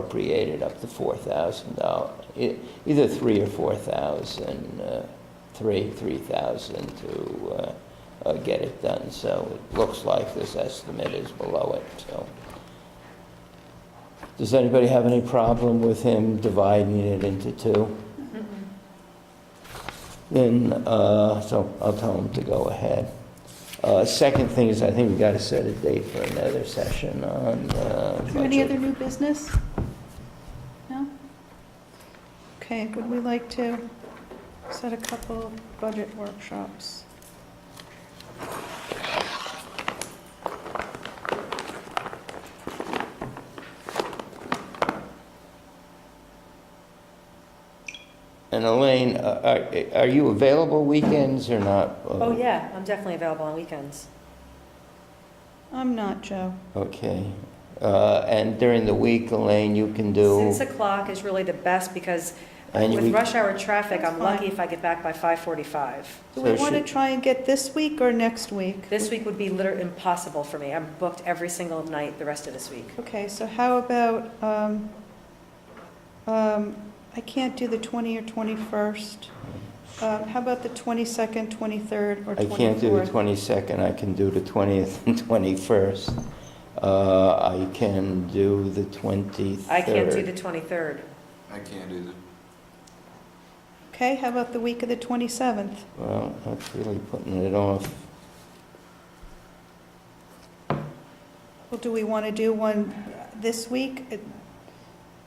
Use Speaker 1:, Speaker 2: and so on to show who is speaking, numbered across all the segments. Speaker 1: appropriated up to four thousand dollars, E, either three or four thousand, uh, three, three thousand to, uh, uh, get it done. So it looks like this estimate is below it, so. Does anybody have any problem with him dividing it into two?
Speaker 2: Mm-hmm.
Speaker 1: Then, uh, so I'll tell him to go ahead. Uh, second thing is, I think we gotta set a date for another session on, uh.
Speaker 3: Is there any
Speaker 1: budget.
Speaker 3: other new business? No? Okay, would we like to set a couple budget workshops?
Speaker 1: And Elaine, uh, are are you available weekends or not?
Speaker 2: Oh, yeah, I'm definitely available on weekends.
Speaker 3: I'm not, Joe.
Speaker 1: Okay. Uh, And during the week, Elaine, you can do,
Speaker 2: Six o'clock is really the best because
Speaker 1: And
Speaker 2: with
Speaker 1: we-
Speaker 2: rush hour traffic, I'm
Speaker 3: That's fine.
Speaker 2: lucky if I get back by 5:45.
Speaker 3: Do we
Speaker 1: So
Speaker 3: want to
Speaker 1: should-
Speaker 3: try and get this week or next week?
Speaker 2: This week would be literally impossible for me. I'm booked every single night the rest of this week.
Speaker 3: Okay, so how about, um, um, I can't do the 20 or 21st. Um, How about the 22nd, 23rd, or
Speaker 1: I
Speaker 3: 24th?
Speaker 1: can't do the 22nd, I can do the 20th and 21st. Uh, I can do the 23rd.
Speaker 2: I can't do the 23rd.
Speaker 4: I can't do the
Speaker 3: Okay, how about the week of the 27th?
Speaker 1: Well, that's really putting it off.
Speaker 3: Well, do we want to do one this week? It-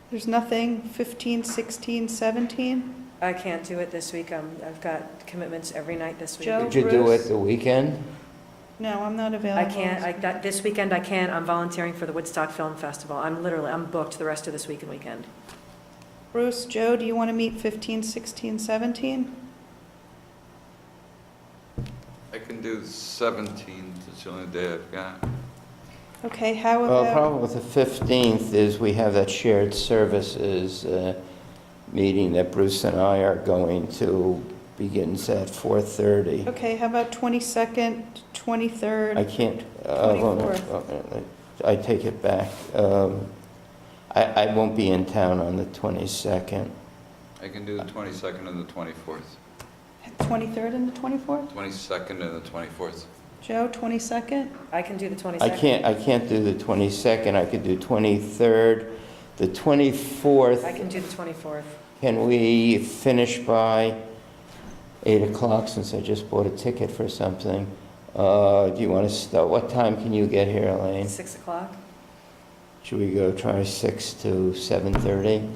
Speaker 3: There's nothing, 15, 16, 17?
Speaker 2: I can't do it this week. Um, I've got commitments every night this week.
Speaker 3: Joe?
Speaker 1: Could you do it
Speaker 3: Bruce?
Speaker 1: the weekend?
Speaker 3: No, I'm not
Speaker 2: I
Speaker 3: available.
Speaker 2: can't, I, that- this weekend I can't. I'm volunteering for the Woodstock Film Festival. I'm literally, I'm booked the rest of this week and weekend.
Speaker 3: Bruce, Joe, do you want to meet 15, 16, 17?
Speaker 4: I can do the 17th, it's the only day I've got.
Speaker 3: Okay, how
Speaker 1: Well, the
Speaker 3: about,
Speaker 1: problem with the 15th is we have that shared services uh, meeting that Bruce and I are going to, begins at 4:30.
Speaker 3: okay, how about 22nd,
Speaker 1: I
Speaker 3: 23rd?
Speaker 1: can't, uh, well, no,
Speaker 3: 24th.
Speaker 1: uh, I take it back. Um, I I won't be in town on the 22nd.
Speaker 4: I can do the 22nd and the 24th.
Speaker 3: 23rd and the 24th?
Speaker 4: 22nd and the 24th.
Speaker 3: Joe, 22nd?
Speaker 2: I can do the 22nd.
Speaker 1: I can't, I can't do the 22nd, I could do 23rd. The 24th.
Speaker 2: I can do the 24th.
Speaker 1: Can we finish by 8 o'clock, since I just bought a ticket for something? Uh, Do you want to start, what time can you get here, Elaine?
Speaker 2: 6 o'clock?
Speaker 1: Should we go try 6 to 7:30?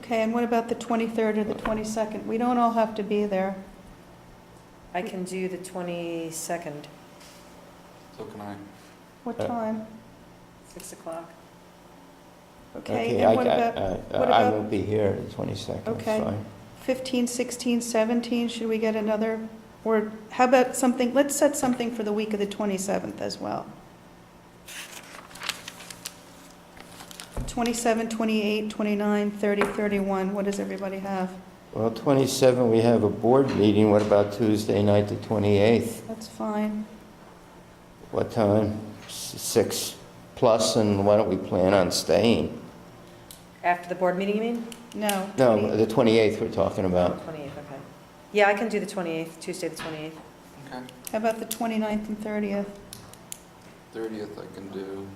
Speaker 3: Okay, and what about the 23rd or the 22nd? We don't all have to be there.
Speaker 2: I can do the 22nd,
Speaker 4: So can I.
Speaker 3: What
Speaker 1: Uh,
Speaker 3: time?
Speaker 2: 6 o'clock.
Speaker 3: Okay,
Speaker 1: I-
Speaker 3: and what
Speaker 1: I-
Speaker 3: about
Speaker 1: I-
Speaker 3: what
Speaker 1: I
Speaker 3: about-
Speaker 1: won't be here the 22nd, it's
Speaker 3: Okay.
Speaker 1: fine.
Speaker 3: 15, 16, 17, should we get another? Or how about something, let's set something for the week of the 27th as well. 27, 28, 29, 30, 31, what does everybody have?
Speaker 1: Well, 27, we have a board meeting, what about Tuesday night, the 28th?
Speaker 3: That's fine.
Speaker 1: What time? S- 6 plus, and why don't we plan on staying?
Speaker 2: After the board meeting, you mean?
Speaker 3: No.
Speaker 1: No,
Speaker 3: 20
Speaker 1: the 28th we're talking about.
Speaker 2: 28th, okay. Yeah, I can do the 28th, Tuesday, the 28th.
Speaker 4: Okay.
Speaker 3: How about the 29th and 30th?
Speaker 4: 30th I can do.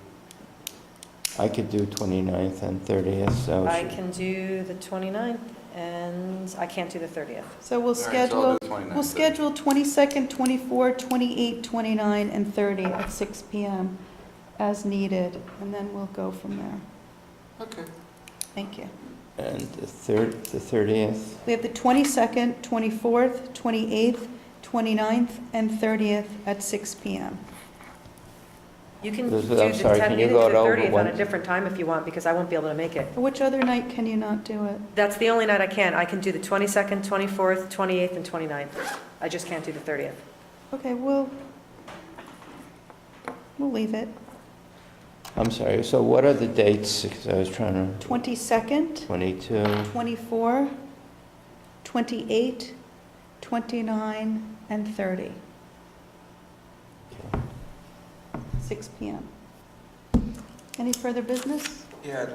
Speaker 1: I could do 29th and 30th, so.
Speaker 2: I
Speaker 1: should-
Speaker 2: can do the 29th, and I can't do the 30th.
Speaker 3: So we'll
Speaker 4: All right, so I'll
Speaker 3: schedule,
Speaker 4: do 29th.
Speaker 3: we'll schedule 22nd, 24, 28, 29, and 30 at 6 PM as needed, and then we'll go from there.
Speaker 4: Okay.
Speaker 3: Thank you.
Speaker 1: And the third, the 30th,
Speaker 3: We have the 22nd, 24th, 28th, 29th, and 30th at 6 PM.
Speaker 2: You can do
Speaker 1: This
Speaker 2: the
Speaker 1: is-
Speaker 2: 10th,
Speaker 1: I'm sorry, can you
Speaker 2: you can
Speaker 1: go
Speaker 2: do the
Speaker 1: it over
Speaker 2: 30th on
Speaker 1: one-
Speaker 2: a different time if you want, because I won't be able to make it.
Speaker 3: Which other night can you not do it?
Speaker 2: That's the only night I can. I can do the 22nd, 24th, 28th, and 29th. I just can't do the 30th.
Speaker 3: Okay, we'll, we'll leave it.
Speaker 1: I'm sorry, so what are the dates? 'Cause I was trying to,
Speaker 3: 22nd,
Speaker 1: 22,
Speaker 3: 24, 28, 29, and 30,
Speaker 1: okay.
Speaker 3: 6 PM. Any further business?
Speaker 4: Yeah, I'd